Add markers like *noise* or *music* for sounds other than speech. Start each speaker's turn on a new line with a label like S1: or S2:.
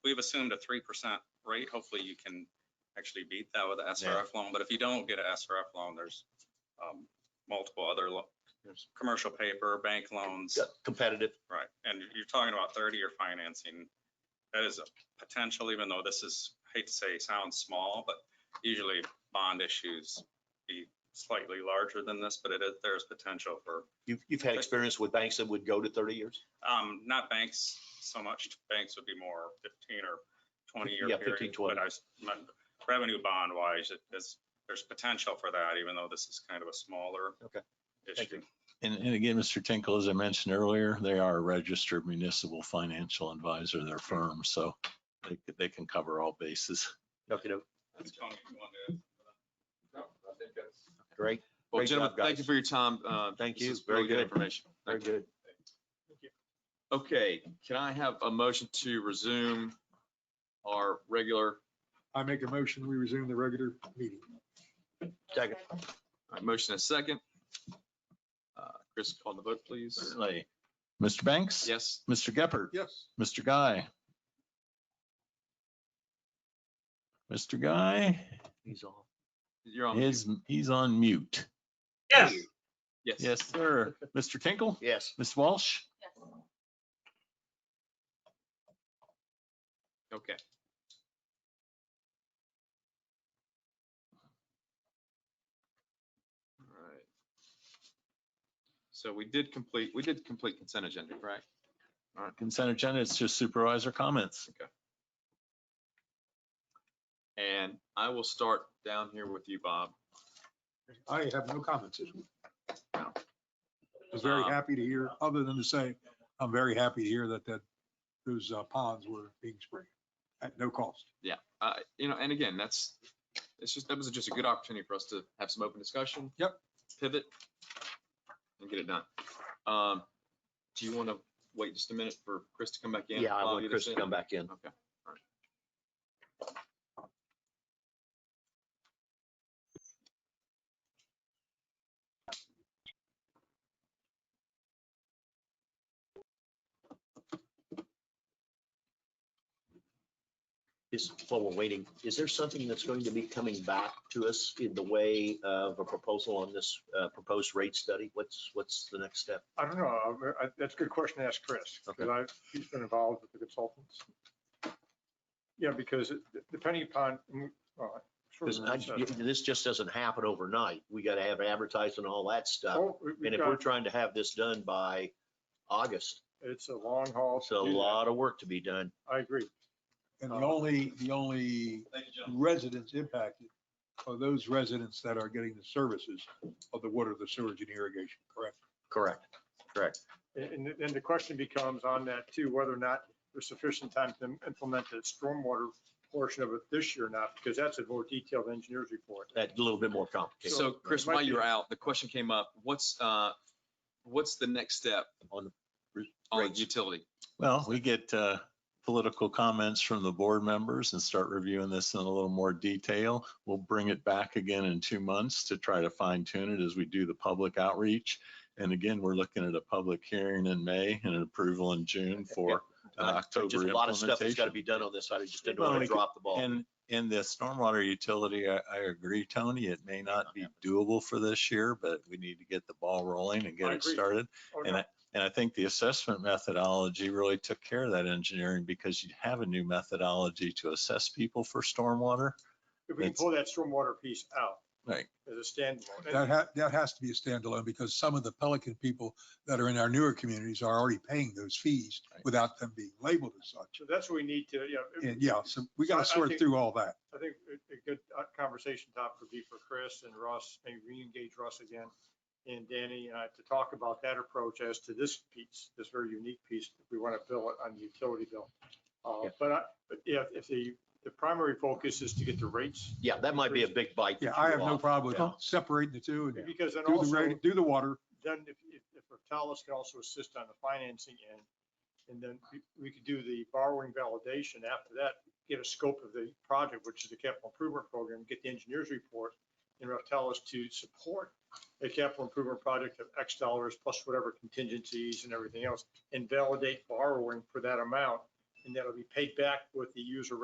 S1: we've assumed a three percent rate. Hopefully you can actually beat that with a SRF loan, but if you don't get a SRF loan, there's um, multiple other lo- there's commercial paper, bank loans,
S2: Yeah, Competitive.
S1: right? And you're talking about thirty-year financing. That is a potential, even though this is, hate to say, sounds small, but usually bond issues be slightly larger than this, but it is, there's potential for
S2: You've, you've had experience with banks that would go to 30 years?
S1: Um, not banks so much. Banks would be more fifteen or twenty year
S2: Yeah,
S1: period.
S2: 15, 20.
S1: But I, s- my- revenue bond wise, it is, there's potential for that, even though this is kind of a smaller.
S2: Okay. Thank
S1: Issue.
S3: And, and again, Mr. Tinkle, as I mentioned earlier, they are a registered municipal financial advisor, their firm, so they, c- they can cover all bases.
S2: Okay, no,
S1: That's Tony, you want to-
S2: great,
S4: Well,
S2: Great
S4: gentlemen,
S2: job,
S4: thank
S2: guys.
S4: you for your time. Uh,
S2: Thank
S4: this
S2: you.
S4: is
S2: Very
S4: Really good
S2: good.
S4: information.
S2: very
S4: Thank you.
S2: good.
S4: Okay, can I have a motion to resume our regular,
S5: I make a motion, we resume the regular meeting.
S2: Second,
S4: all right, motion and a second? Uh, Chris, call the vote, please.
S3: Certainly. Mr. Banks?
S4: Yes,
S3: Mr. Geppert?
S5: Yes.
S3: Mr. Guy? Mr. Guy
S2: he's on.
S4: you're on.
S3: is, he's on mute.
S6: Yes.
S4: Yes.
S3: Yes, sir. Mr.
S4: *laughs*
S3: Tinkle?
S2: Yes,
S3: Ms. Walsh?
S4: Okay. All right. So we did complete, we did complete consent agenda, correct?
S3: Consent agenda, it's just supervisor comments.
S4: And I will start down here with you, Bob.
S5: I have no comments this week. I was very
S4: Um,
S5: happy to hear, other than to say, I'm very happy to hear that, that those uh, ponds were being sprayed at no cost.
S4: uh, you know, and again, that's, it's just, that was just a good opportunity for us to have some open discussion.
S5: Yep.
S4: Pivot and get it done. Um, do you want to wait just a minute for Chris to come back in?
S2: yeah, I
S4: Bob,
S2: want
S4: you
S2: Chris to
S4: understand?
S2: come back in.
S4: Okay. all right.
S2: Is, while we're waiting, is there something that's going to be coming back to us in the way of a proposal on this uh, proposed rate study? What's, what's the next step?
S7: I don't know. I'm- I- That's a good question to ask Chris, because I, he's been involved with the consultants. Yeah, because it- depending upon, mm, well, I'm sure
S2: Because I-
S7: Maria said-
S2: this just doesn't happen overnight. We got to have advertising, all that stuff.
S7: Oh, we-
S2: And
S7: we've
S2: if we're
S7: got-
S2: trying to have this done by August,
S7: It's a long haul. to
S2: it's a
S7: do that.
S2: lot of work to be done.
S7: I agree.
S5: And the only, the only residents impacted are those residents that are getting the services of the water, the sewage and irrigation, correct?
S2: Correct.
S7: And, and the question becomes on that too, whether or not there's sufficient time to implement the stormwater portion of it this year or not, because that's a more detailed engineer's report.
S2: That's a little bit more complicated
S4: So Chris,
S7: it might
S4: while
S7: be-
S4: you were out, the question came up, what's, uh, what's the next step
S2: on the
S4: on
S2: Rates.
S4: utility?
S3: Well, we get uh, political comments from the board members and start reviewing this in a little more detail. We'll bring it back again in two months to try to fine tune it as we do the public outreach. And again, we're looking at a public hearing in May and an approval in June for uh,
S2: Uh, Just
S3: October
S2: a lot of stuff that's got to
S3: implementation.
S2: be done on this. I just didn't
S3: Well,
S2: want to
S3: we could-
S2: drop the ball.
S3: And, and the stormwater utility, I, I agree, Tony, it may not be doable for this year, but we need to get the ball rolling and get
S7: I
S3: it
S7: agree.
S3: started.
S7: Oh,
S3: And
S7: no.
S3: I, and I think the assessment methodology really took care of that engineering because you have a new methodology to assess people for stormwater.
S7: If we can
S3: it's-
S7: pull that stormwater piece out
S3: Right.
S7: as a standalone. And-
S5: That ha, that has to be a standalone because some of the Pelican people that are in our newer communities are already paying those fees
S3: Right.
S5: without them being labeled as such.
S7: So that's what we need to, you know.
S5: And yeah, so we got to
S7: So I
S5: sort
S7: think-
S5: through all that.
S7: I think a a good uh, conversation topic would be for Chris and Russ, maybe reengage Russ again and Danny uh, to talk about that approach as to this piece, this very unique piece that we want to bill it on the utility bill. Uh,
S2: Yeah.
S7: But I- but if, if the, the primary focus is to get the rates,
S2: Yeah, that might be a big bite. that
S5: Yeah,
S2: you
S5: I have no
S2: off.
S5: problem
S2: Yeah.
S5: with separating the two and do
S7: because then
S5: the,
S7: also,
S5: reg- do the water.
S7: then if, if if Portalis can also assist on the financing end, and then we- we could do the borrowing validation after that, get a scope of the project, which is the capital improvement program, get the engineer's report, and Portalis to support a capital improvement project of X dollars plus whatever contingencies and everything else, and validate borrowing for that amount and that'll be paid back with the user